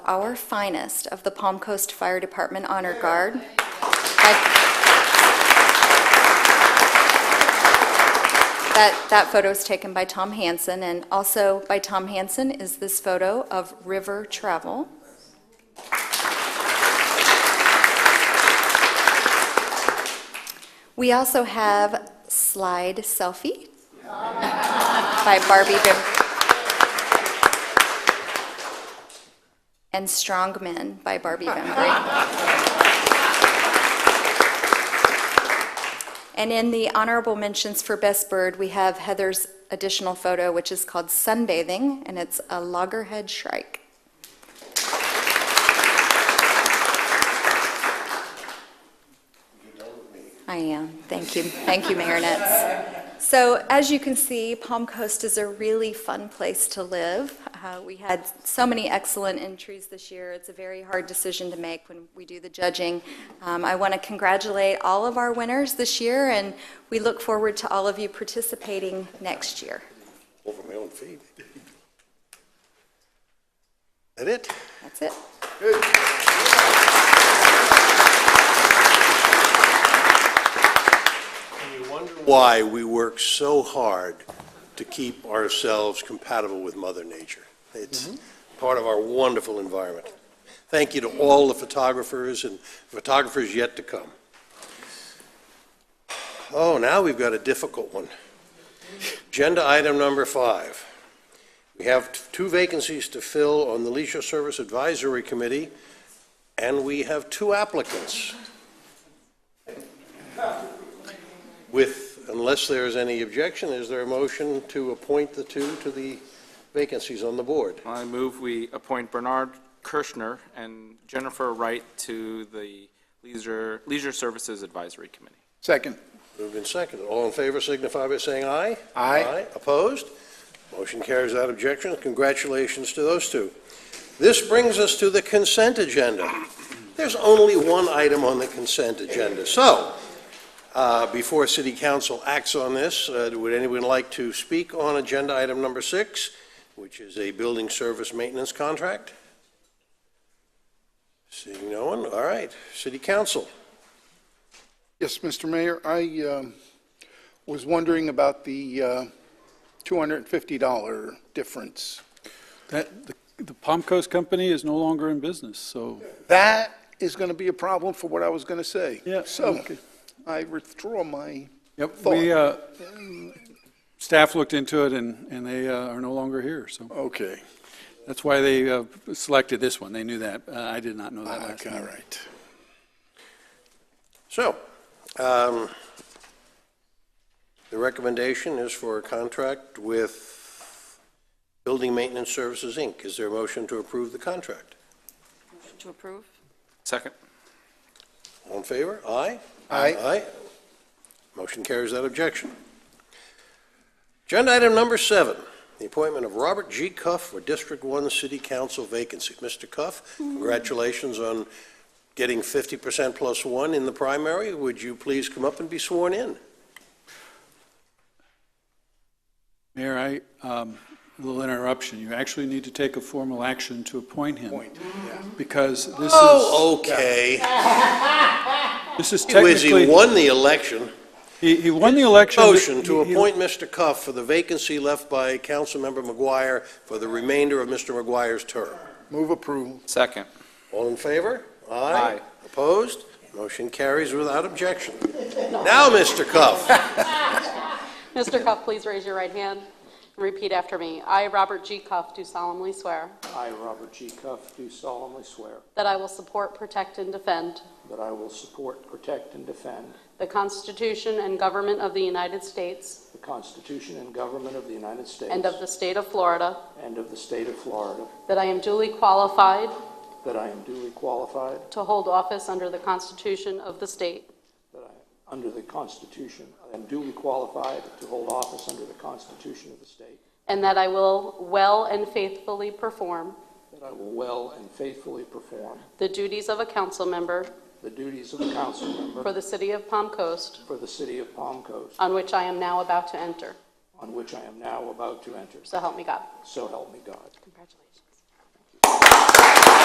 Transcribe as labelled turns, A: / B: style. A: our finest of the Palm Coast Fire Department Honor Guard. That that- that photo is taken by Tom Hansen, and also by Tom Hansen is this photo of river travel. We also have Slide Selfie by Barbie Bim- and Strong Men by Barbie Bembry. And in the honorable mentions for Best Bird, we have Heather's additional photo, which is called Sunbathing, and it's a loggerhead shrike. I am. Thank you. Thank you, Mayor Nitz. So as you can see, Palm Coast is a really fun place to live. Uh, We had so many excellent entries this year. It's a very hard decision to make when we do the judging. Um, I want to congratulate all of our winners this year, and we look forward to all of you participating next year.
B: Over my own feet. That it?
A: That's it.
B: You wonder why we work so hard to keep ourselves compatible with Mother Nature. It's part of our wonderful environment. Thank you to all the photographers and photographers yet to come. Oh, now we've got a difficult one. Agenda item number five. We have t- two vacancies to fill on the Leisure Service Advisory Committee, and we have two applicants. With, unless there is any objection, is there a motion to appoint the two to the vacancies on the board?
C: I move we appoint Bernard Kirschner and Jennifer Wright to the Leisure, Leisure Services Advisory Committee.
D: Second.
B: Moved and seconded. All in favor signify by saying aye.
D: Aye.
B: Opposed? Motion carries without objection. Congratulations to those two. This brings us to the consent agenda. There's only one item on the consent agenda. So, uh, before city council acts on this, uh, would anyone like to speak on agenda item number six, which is a building service maintenance contract? Seeing no one, all right. City council.
D: Yes, Mr. Mayor, I um, was wondering about the uh, $250 difference.
E: That, the, the Palm Coast Company is no longer in business, so,
D: That is going to be a problem for what I was going to say.
E: Yeah,
D: So
E: okay.
D: I withdraw my,
E: yep, we, uh, staff looked into it and, and they, uh, are no longer here, so.
D: okay,
E: That's why they, uh, selected this one, they knew that, uh, I did not know
B: Ah,
E: that last
D: okay, all
E: time.
D: right.
B: So, um, the recommendation is for a contract with Building Maintenance Services, Inc. Is there a motion to approve the contract?
F: To approve?
C: Second?
B: All in favor? Aye?
D: Aye.
B: Aye. Motion carries that objection. Agenda item number seven, the appointment of Robert G. Cuff for District One City Council vacancy. Mr. Cuff, congratulations on getting fifty percent plus one in the primary. Would you please come up and be sworn in?
E: Mayor, I, um, a little interruption, you actually need to take a formal action to appoint him. Because this is,
B: Oh, okay.
E: this is
B: Whiz, he
E: technically,
B: won the election.
E: he, he won the election. but
B: Motion to
E: he- he-
B: appoint Mr. Cuff for the vacancy left by Councilmember McGuire for the remainder of Mr. McGuire's term.
D: Move approval.
C: Second.
B: All in favor?
C: Aye.
B: Opposed? Motion carries without objection. Now, Mr. Cuff,
F: Mr. Cuff, please raise your right hand and repeat after me. I, Robert G. Cuff, do solemnly swear
G: I, Robert G. Cuff, do solemnly swear
F: that I will support, protect, and defend
G: that I will support, protect, and defend
F: the Constitution and government of the United States
G: the Constitution and government of the United States
F: and of the state of Florida,
G: and of the state of Florida,
F: that I am duly qualified
G: that I am duly qualified,
F: to hold office under the Constitution of the state,
G: that I, under the Constitution, I am duly qualified to hold office under the Constitution of the state,
F: and that I will well and faithfully perform
G: that I will well and faithfully perform
F: the duties of a council member
G: the duties of a council
F: for
G: member
F: the city of Palm Coast,
G: for the city of Palm Coast,
F: on which I am now about to enter.
G: on which I am now about to enter.
F: So help me God.
G: So help me God.
F: Congratulations.